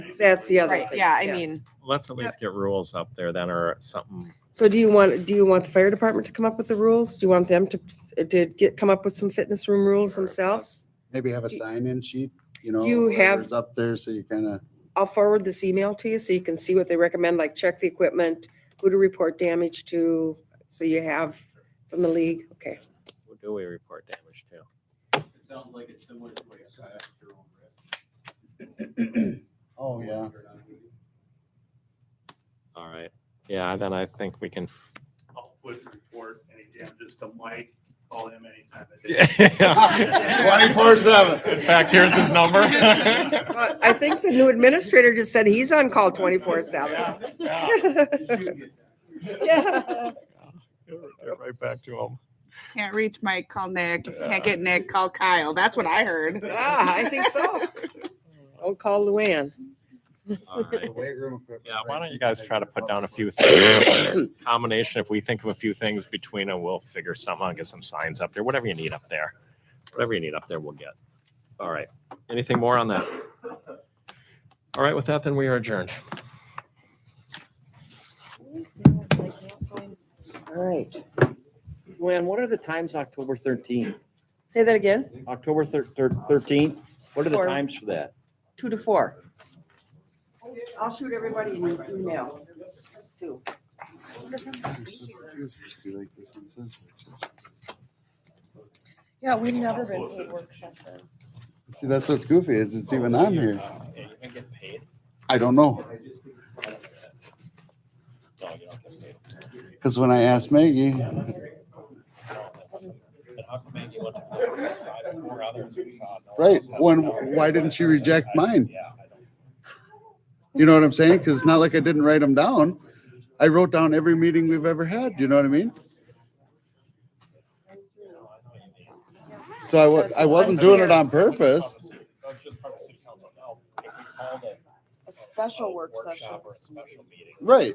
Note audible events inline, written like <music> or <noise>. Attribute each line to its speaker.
Speaker 1: That's the other
Speaker 2: Right,
Speaker 1: thing.
Speaker 2: yeah, I
Speaker 1: yes.
Speaker 2: mean-
Speaker 3: Let's at least get rules up there then or something.
Speaker 1: So do you want, do you want the fire department to come up with the rules? Do you want them to, to get, come up with some fitness room rules themselves?
Speaker 4: Maybe have a
Speaker 1: Do-
Speaker 4: sign-in sheet, you know.
Speaker 1: you have-
Speaker 4: whatever's Up there, so you kind of,
Speaker 1: I'll forward this email to you so you can see what they recommend, like check the equipment, who to report damage to, so you have from the league, okay.
Speaker 3: Who do we report damage to?
Speaker 5: It sounds like it's similar to what you said. your own risk.
Speaker 4: oh, yeah.
Speaker 5: You're not doing it.
Speaker 3: All right. Yeah, then I think we <laughs> can.
Speaker 6: I'll put report any damages to Mike, call
Speaker 3: <laughs>
Speaker 6: him anytime. of day.
Speaker 4: Twenty-four
Speaker 3: In
Speaker 4: seven.
Speaker 3: fact, here's his number.
Speaker 1: Well, I think the new administrator just said he's on call twenty-four
Speaker 3: <laughs>
Speaker 1: seven.
Speaker 6: Yeah, yeah.
Speaker 1: <laughs>
Speaker 5: You should get that.
Speaker 3: Get Right back to him.
Speaker 2: Can't reach Mike, call Nick. If you can't get Nick, call Kyle. That's what I heard.
Speaker 1: Ah, I think so. I'll call Luann.
Speaker 3: All right.
Speaker 4: Weight room equipment,
Speaker 3: Yeah, why
Speaker 4: right,
Speaker 3: don't
Speaker 4: so
Speaker 3: you guys
Speaker 4: can
Speaker 3: try to
Speaker 4: have your
Speaker 3: put down a
Speaker 4: public
Speaker 3: few
Speaker 4: works.
Speaker 3: things? <coughs> Combination, if we think of a few things between them, we'll figure something out, get some signs up there, whatever you need up there. Whatever you need up there, we'll get. All right. Anything more on that? All right, with that, then we are adjourned.
Speaker 1: All right.
Speaker 7: Luann, what are the times October thirteenth?
Speaker 1: Say that again?
Speaker 7: October thirteenth, what are the
Speaker 1: Four.
Speaker 7: times for that?
Speaker 1: two to four. I'll shoot everybody an email, too.
Speaker 4: I'm so confused to see, like, this one says work session.
Speaker 8: Yeah, we've never been paid work session.
Speaker 4: See, that's what's goofy is it's even on here.
Speaker 3: Yeah, you can get paid.
Speaker 4: I don't know.
Speaker 3: No, you don't get paid.
Speaker 4: Cause when I asked Maggie,
Speaker 3: But how come you went to the side and four others and saw no one
Speaker 4: right,
Speaker 3: else has
Speaker 4: when,
Speaker 3: salary?
Speaker 4: why didn't she reject mine?
Speaker 3: Yeah.
Speaker 4: You know what I'm saying? Cause it's not like I didn't write them down. I wrote down every meeting we've ever had, you know what I mean? So I wa- I wasn't doing it on purpose.
Speaker 3: That's just part of city council. Now, if we called it
Speaker 8: A special work session.
Speaker 3: workshop or a special meeting,
Speaker 4: Right.